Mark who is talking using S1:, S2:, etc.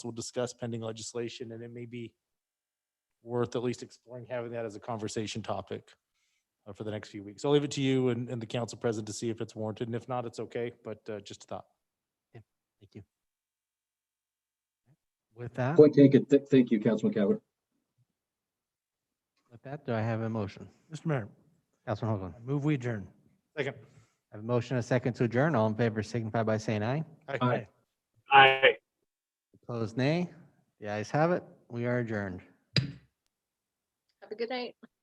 S1: will discuss pending legislation, and it may be worth at least exploring having that as a conversation topic uh, for the next few weeks. I'll leave it to you and, and the council president to see if it's warranted, and if not, it's okay, but uh, just a thought.
S2: Thank you. With that,
S3: Point taken. Th- Thank you, Councilman Cavanaugh.
S2: with that, do I have a motion?
S4: Mr. Mayor,
S2: Councilman Hoagland.
S4: I move we adjourn.
S1: Second.
S2: I have a motion, and a second to adjourn. All in favor signify by saying aye.
S3: Aye.
S5: Aye.
S2: Opposed, nay. The ayes have it. We are adjourned.
S6: Have a good night.